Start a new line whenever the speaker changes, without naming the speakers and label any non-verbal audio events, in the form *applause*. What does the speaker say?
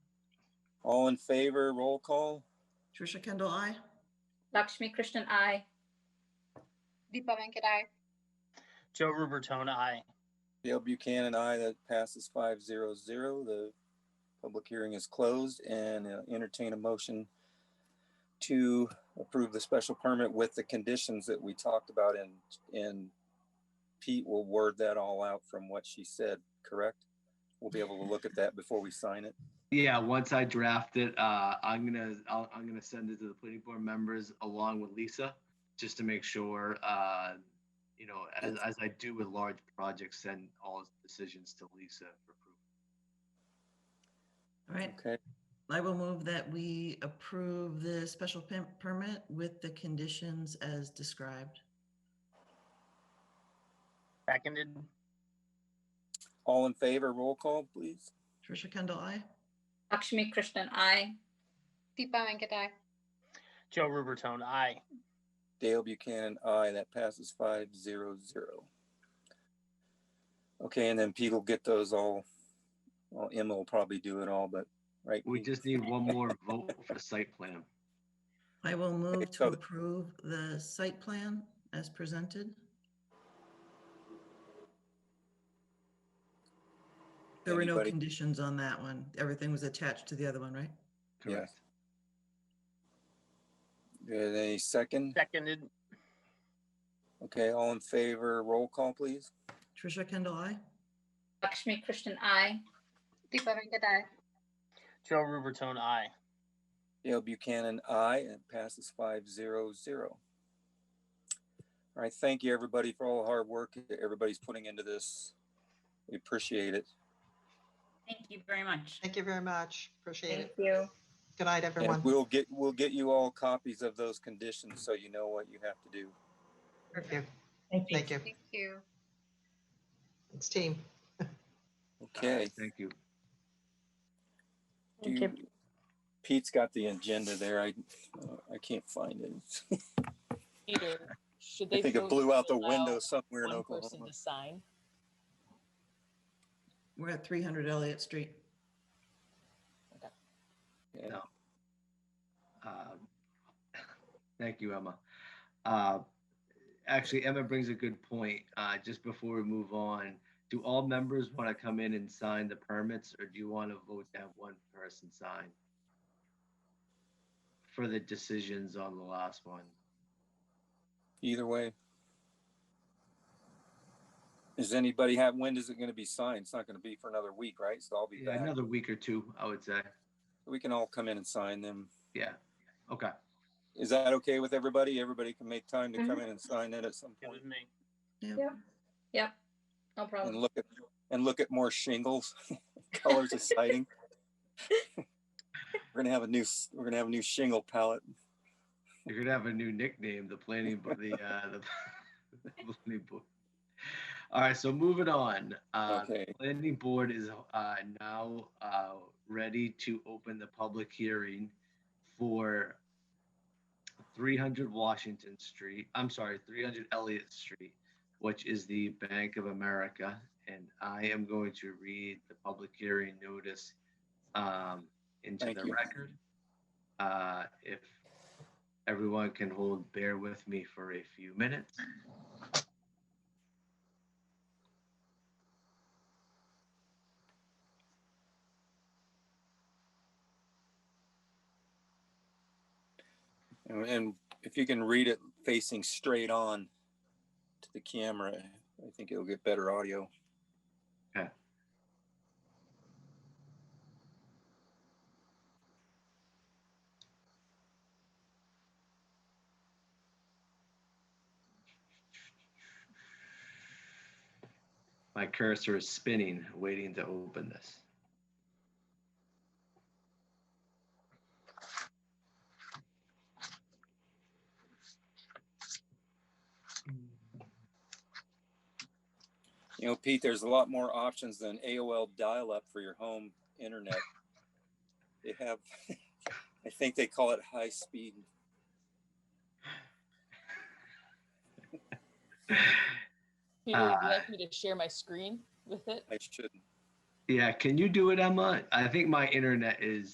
All in favor, roll call?
Trisha Kendall, I.
Lakshmi Krishnan, I.
Deepa Venkatai.
Joe Rubertone, I.
Dale Buchanan, aye. That passes five zero zero. The public hearing is closed and uh, entertain a motion to approve the special permit with the conditions that we talked about and, and Pete will word that all out from what she said, correct? We'll be able to look at that before we sign it.
Yeah, once I draft it, uh, I'm gonna, I'll, I'm gonna send it to the planning board members along with Lisa, just to make sure, uh, you know, as, as I do with large projects, send all decisions to Lisa for approval.
All right,
Okay,
I will move that we approve the special pim- permit with the conditions as described.
Seconded.
all in favor, roll call, please?
Trisha Kendall, I.
Lakshmi Krishnan, I.
Deepa Venkatai.
Joe Rubertone, I.
Dale Buchanan, aye. That passes five zero zero. Okay, and then Pete will get those all, well, Emma will probably do it all, but, right?
We just need one more vote for site plan.
I will move to
so-
approve the site plan as presented. There were no
Anybody?
conditions on that one. Everything was attached to the other one, right?
Correct.
Good, Any second?
Seconded.
Okay, all in favor, roll call, please?
Trisha Kendall, I.
Lakshmi Krishnan, I.
Deepa Venkatai.
Joe Rubertone, I.
Dale Buchanan, aye. It passes five zero zero. All right, thank you, everybody, for all the hard work that everybody's putting into this. We appreciate it.
Thank you very much.
Thank you very much. Appreciate
Thank
it.
you.
Good night,
And
everyone.
we'll get, we'll get you all copies of those conditions, so you know what you have to do.
Thank you.
Thank
Thank you.
Thank you.
It's team.
Okay.
Thank you.
Do you- Pete's got the agenda there. I, uh, I can't find it.
Peter, should they?
I think it
vote
blew
to
out the
allow
window somewhere in
One person
Oklahoma.
to sign.
We're at 300 Elliott Street.
Yeah.
No. Uh, Thank you, Emma. Uh, Actually, Emma brings a good point. Uh, Just before we move on, do all members want to come in and sign the permits, or do you want to vote to have one person sign? For the decisions on the last one.
Either way. Does anybody have, when is it gonna be signed? It's not gonna be for another week, right? So I'll be
Yeah,
back.
another week or two, I would say.
We can all come in and sign them.
Yeah, okay.
Is that okay with everybody? Everybody can make time to come in and sign it at some
It
point
was me.
Yeah.
Yep. No
and
problem.
look at, and look at more shingles, *laughs* colors of siding. We're gonna have a new, s- we're gonna have a new shingle palette.
You're gonna have a new nickname, the planning, bo- the, *laughs* uh, the the planning board. All right, so moving on. Uh,
Okay.
Planning board is uh, now uh, ready to open the public hearing for 300 Washington Street, I'm sorry, 300 Elliott Street, which is the Bank of America. And I am going to read the public hearing notice um, into
Thank
the
you.
record. Uh, If everyone can hold, bear with me for a few minutes.
And- And if you can read it facing straight on to the camera, I think it'll get better audio.
My cursor is spinning, waiting to open this.
You know, Pete, there's a lot more options than AOL dial-up for your home internet. They have, *laughs* I think they call it high-speed.
Peter, would you
Uh,
like me to share my screen with it?
I should.
Yeah, can you do it, Emma? I think my internet is